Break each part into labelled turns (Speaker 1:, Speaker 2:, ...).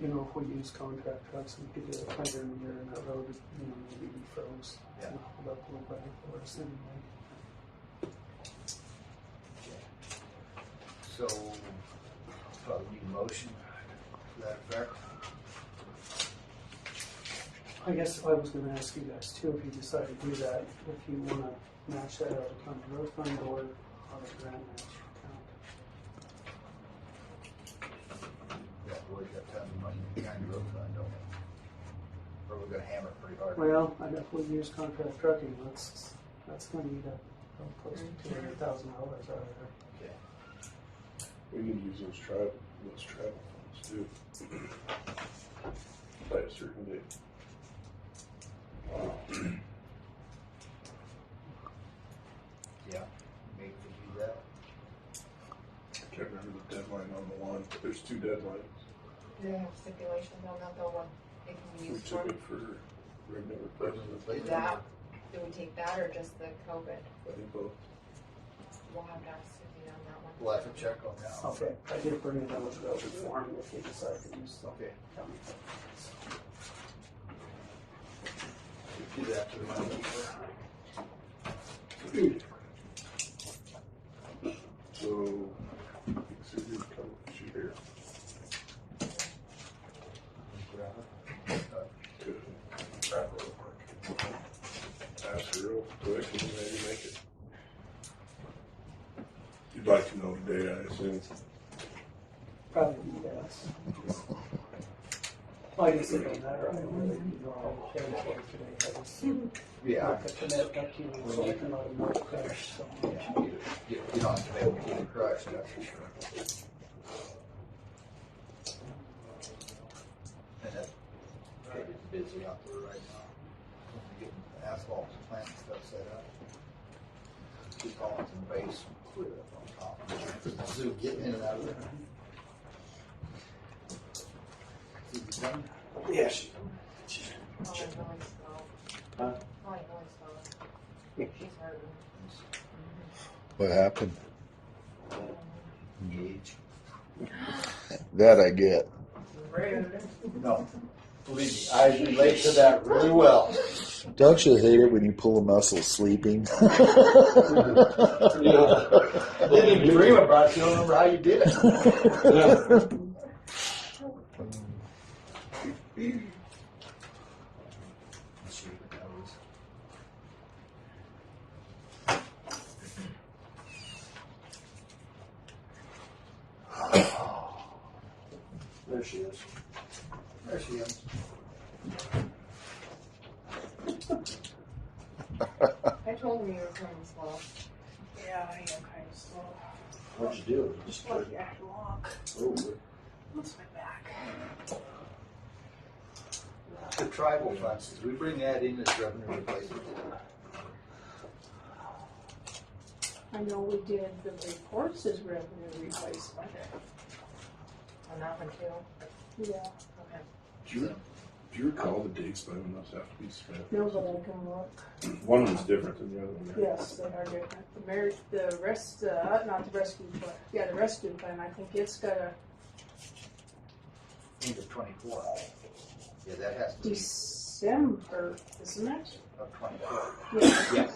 Speaker 1: you know, if we use contract trucks, we could do it later in the year and that road, would, you know, maybe be froze.
Speaker 2: Yeah.
Speaker 1: It'd Hold up a little better for us anyway.
Speaker 2: So, probably need a motion to that effect.
Speaker 1: I guess I was gonna ask you guys too, if you decide to do that, if you wanna match that out of county road fund or out of grant match account.
Speaker 2: That boy got tons of money behind the road fund, don't we? Or we're gonna hammer it pretty hard.
Speaker 1: Well, I got four years contract trucking, that's, that's gonna eat up uh, close to two hundred thousand dollars out of there.
Speaker 2: Okay.
Speaker 3: We need to use those travel, those travel funds too. By a certain date.
Speaker 2: Yeah, maybe we do that.
Speaker 3: I can't remember the deadline on the one, but there's two deadlines.
Speaker 4: Do they have stipulations on that though, what they can
Speaker 3: We
Speaker 4: use
Speaker 3: took
Speaker 4: for?
Speaker 3: it for regular president.
Speaker 4: That, do we take that or just the
Speaker 3: I
Speaker 4: COVID?
Speaker 3: think both.
Speaker 4: We'll have to ask Suzie on that one.
Speaker 2: We'll have to check on that. one.
Speaker 1: Okay, I did bring it out with the open form if you decide to use the
Speaker 2: Okay,
Speaker 1: county.
Speaker 2: do that to the moneykeeper.
Speaker 3: So, Susie, come, she here. Good. Ask her real quick and maybe make it. You'd like to know the date, I assume.
Speaker 1: Probably, yes. Well, I guess it don't matter, I don't really, you know, I'll pay for it today, I just.
Speaker 2: Yeah,
Speaker 1: Like the commit up to you, so I can let them know the crash, so.
Speaker 2: yeah, get, get on to that, get it crushed, that's for sure. And that, it's busy out there right now. Getting asphalt plant and stuff set up. Two columns and base clear up on top. So getting in and out of there. Is it done?
Speaker 1: Yeah, she
Speaker 4: Probably really slow.
Speaker 1: Huh?
Speaker 4: Probably really slow. She's hurting.
Speaker 5: What happened?
Speaker 2: Engage.
Speaker 5: That I get.
Speaker 2: No, believe me, I relate to that really well.
Speaker 5: Don't you hate it when you pull a muscle sleeping?
Speaker 2: I didn't even dream about it. You don't remember how you did it.
Speaker 1: There she is.
Speaker 2: There she is.
Speaker 4: I told him you were coming slow.
Speaker 6: Yeah, I am kind of slow.
Speaker 2: What'd you do? Just
Speaker 6: It's lucky I can walk.
Speaker 2: oh,
Speaker 6: What's my back?
Speaker 2: the tribal funds. Did we bring that in as revenue replacement?
Speaker 6: I know we did the reports as revenue replacement.
Speaker 4: On that one too?
Speaker 6: Yeah.
Speaker 4: Okay.
Speaker 3: Do you, do you recall the dates by when those have to be spent?
Speaker 6: No, but I can look.
Speaker 3: One was different than the other one. right?
Speaker 6: Yes, they are different. The marriage, the rest, uh, not the rescue plan. Yeah, the rescue plan. I think it's got a
Speaker 2: End of twenty-four. Yeah, that has to be
Speaker 6: December, isn't it?
Speaker 2: of twenty-four.
Speaker 6: Yeah,
Speaker 2: Yeah.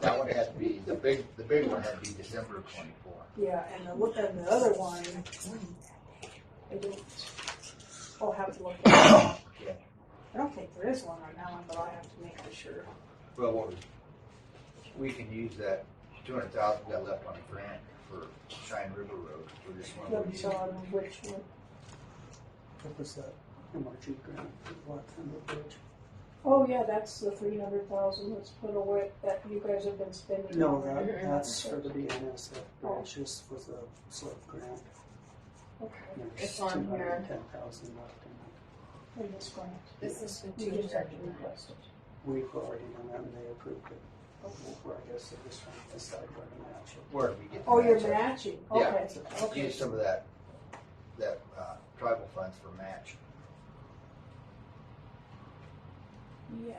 Speaker 2: That one had to be, the big, the big one had to be December of twenty-four.
Speaker 6: yeah. And the look and the other one, I don't. I'll have to look. I
Speaker 2: Yeah.
Speaker 6: don't think there is one on that one, but I'll have to make sure.
Speaker 2: Well, what we- we can use that two hundred thousand we got left on a grant for Shine River Road. We're just
Speaker 6: Let me
Speaker 2: wondering.
Speaker 6: show them which one.
Speaker 1: What was that MRG grant, what kind of bridge?
Speaker 6: Oh, yeah, that's the three hundred thousand that's put away, that you guys have been spending.
Speaker 1: No,
Speaker 6: on
Speaker 1: that,
Speaker 6: it.
Speaker 1: that's for the BNSF, branch. This was a slip grant.
Speaker 6: Okay,
Speaker 4: It's on
Speaker 1: Two hundred
Speaker 4: here.
Speaker 1: and ten thousand left in
Speaker 6: in this grant.
Speaker 4: This is the
Speaker 6: You
Speaker 4: two
Speaker 6: just have to
Speaker 4: thirty-nine.
Speaker 6: request it.
Speaker 1: it. We've already done that and they approved it. Where I guess they're just trying to decide where to match it.
Speaker 2: Where did we get? the
Speaker 6: Oh, you're
Speaker 2: match at?
Speaker 6: matching,
Speaker 2: Yeah.
Speaker 6: okay, okay.
Speaker 2: Use some of that, that, uh, tribal funds for match.
Speaker 6: Yeah,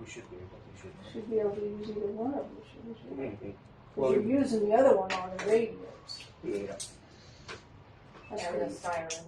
Speaker 2: We should be able, we should.
Speaker 6: should be able to use either one of them, shouldn't you?
Speaker 3: Mhm.
Speaker 6: Cause you're using the other one on the radios.
Speaker 3: Yeah.
Speaker 6: That's
Speaker 4: Yeah,
Speaker 6: where
Speaker 4: the
Speaker 6: you-
Speaker 4: sirens.